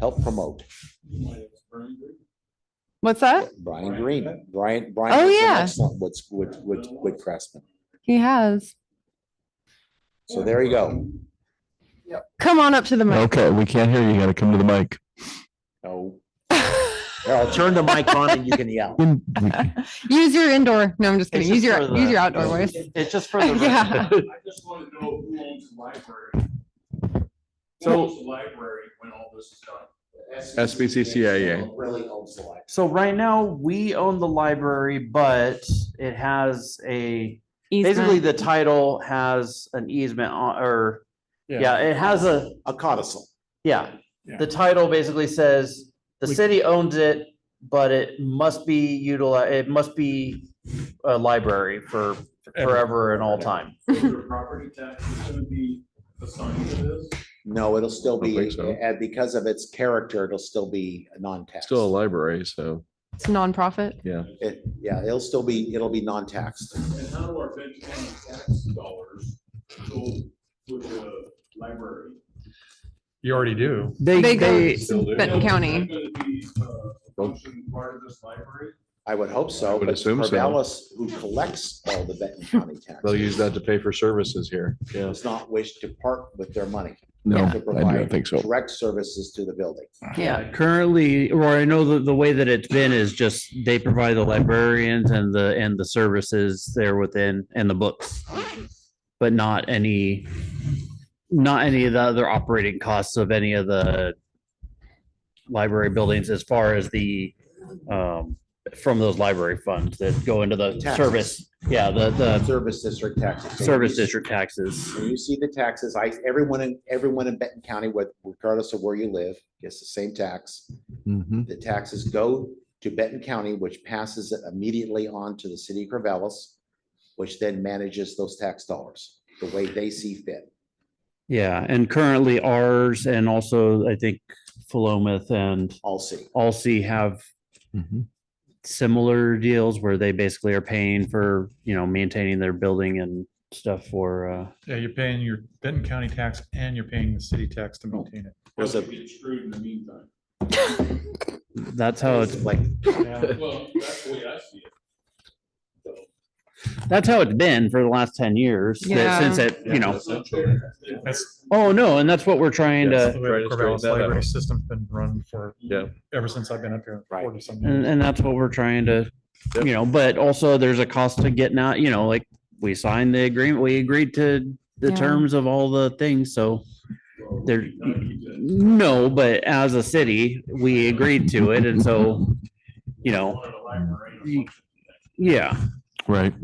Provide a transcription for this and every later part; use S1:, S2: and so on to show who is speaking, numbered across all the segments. S1: help promote.
S2: What's that?
S1: Brian Green, Brian, Brian. has
S2: Oh,
S1: done
S2: yeah.
S1: Excellent with, with, with, with Craftsman.
S2: He has.
S1: So there you go.
S2: Come on up to the mic.
S3: Okay, we can't hear you. You gotta come to the mic.
S1: No, Here, I'll turn the mic on and you can yell.
S2: Use your indoor. No, I'm just
S4: It's
S2: kidding. Use
S4: just
S2: your
S4: for
S2: use
S4: the-
S2: your outdoor voice.
S4: It's just for the.
S2: Yeah.
S4: record.
S5: I just want to know who owns the library. Who
S4: So-
S5: owns the library when all this is done?
S6: SBCCAA.
S1: Really owns the life.
S4: So right now, we own the library, but it has a, basically
S2: Easement.
S4: the title has an easement on, or, yeah, it has a,
S1: A codicil.
S4: yeah.
S6: Yeah.
S4: The title basically says the
S6: We-
S4: city owns it, but it must be utilized, it must be a library for forever and all time.
S5: Is there property tax that's going to be assigned to this?
S1: No, it'll still
S6: Don't
S1: be,
S6: think so.
S1: and because of its character, it'll still be non-tax.
S6: Still a library, so
S2: It's nonprofit.
S1: It, yeah, it'll still be, it'll be non-taxed.
S5: And how do our Benton County tax dollars go with the library?
S6: you already do.
S2: They go
S6: Still do.
S2: Benton
S5: Is
S2: County.
S5: that gonna be, uh, function part of this library?
S1: I would hope
S6: I
S1: so,
S6: would
S1: but
S6: assume so.
S1: Corvallis, who collects all the Benton County
S6: They'll
S1: taxes,
S6: use that to pay for services here. Yeah.
S1: does not wish to part with their money.
S3: No,
S1: to
S3: I
S1: provide
S3: don't think so.
S1: Direct services to the building.
S2: Yeah.
S7: Uh, Currently, or I know that the way that it's been is just they provide the librarians and the, and the services there within and the books. But not any, not any of the other operating costs of any of the library buildings as far as the, um, from those library funds that go into the
S1: Taxes.
S7: service. Yeah, the, the
S1: Service district taxes. So
S7: service
S1: when you-
S7: district taxes.
S1: When you see the taxes, I, everyone in, everyone in Benton County, with- regardless of where you live, gets the same tax.
S3: Mhm.
S1: The taxes go to Benton County, which passes it immediately on to the city of Corvallis, which then manages those tax dollars the way they see fit.
S7: Yeah, and currently ours and also I think Philomath and
S1: All see.
S7: Alsea have
S3: Mhm.
S7: similar deals where they basically are paying for, you know, maintaining their building and stuff for, uh,
S8: Yeah, you're paying your Benton County tax and you're paying the city tax to maintain it.
S1: There's
S5: Doesn't
S1: a-
S5: Get screwed in the meantime.
S7: that's how Oh, it's,
S1: Like,
S5: Well, that's the way I see it.
S7: that's how it's been for the last ten years, that-
S2: Yeah.
S7: since it, you know,
S5: It's not fair.
S8: That's-
S7: oh, no, and uh, that's what we're trying
S6: Yes.
S7: to,
S8: The way
S6: Try to
S8: Corvallis
S6: straighten that
S8: library
S6: out.
S8: system's been run for,
S6: Yeah.
S8: ever since I've been up here.
S1: Right.
S8: 40 some
S7: and,
S8: years.
S7: and that's what we're trying to,
S6: Yep.
S7: you know, but also there's a cost to getting out, you know, like, we signed the agreement, we agreed to the
S2: Yeah.
S7: terms of all the things, so
S5: Well,
S7: there,
S5: we gotta keep that-
S7: no, but as a city, we agreed to it, and so, you know,
S5: Wanted a library and a
S7: you-
S5: function.
S7: yeah,
S3: Right.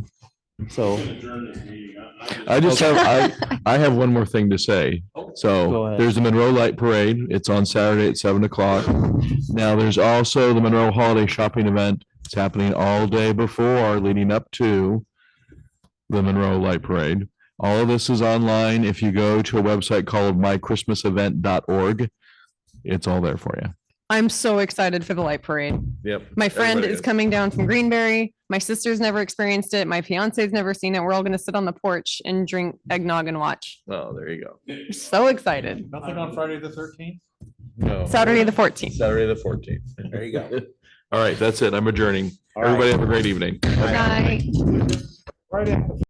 S7: so.
S5: Adjourn this meeting. I- I just-
S3: I just have, I, I have one more thing to say.
S6: Oh,
S7: Go
S3: So
S7: ahead.
S3: there's the Monroe Light Parade. It's on Saturday at seven o'clock. Now, there's also the Monroe Holiday Shopping Event. It's happening all day before leading up to the Monroe Light Parade. All of this is online. If you go to a website called mychristmasevent.org, it's all there for you.
S2: I'm so excited for the light parade.
S6: Yep.
S2: My friend
S6: Everybody
S2: is coming down from Greenberry. My sister's never experienced it. My fiance's never seen it. We're all gonna sit on the porch and drink eggnog and watch.
S6: Oh, there you go.
S2: We're So excited.
S8: Nothing on Friday the thirteenth?
S6: No.
S2: Saturday, the fourteenth.
S6: Saturday, the fourteenth.
S1: There you go.
S3: All right, that's it. I'm adjourning.
S1: All right.
S3: Everybody have a great evening.
S2: Night.
S8: Friday.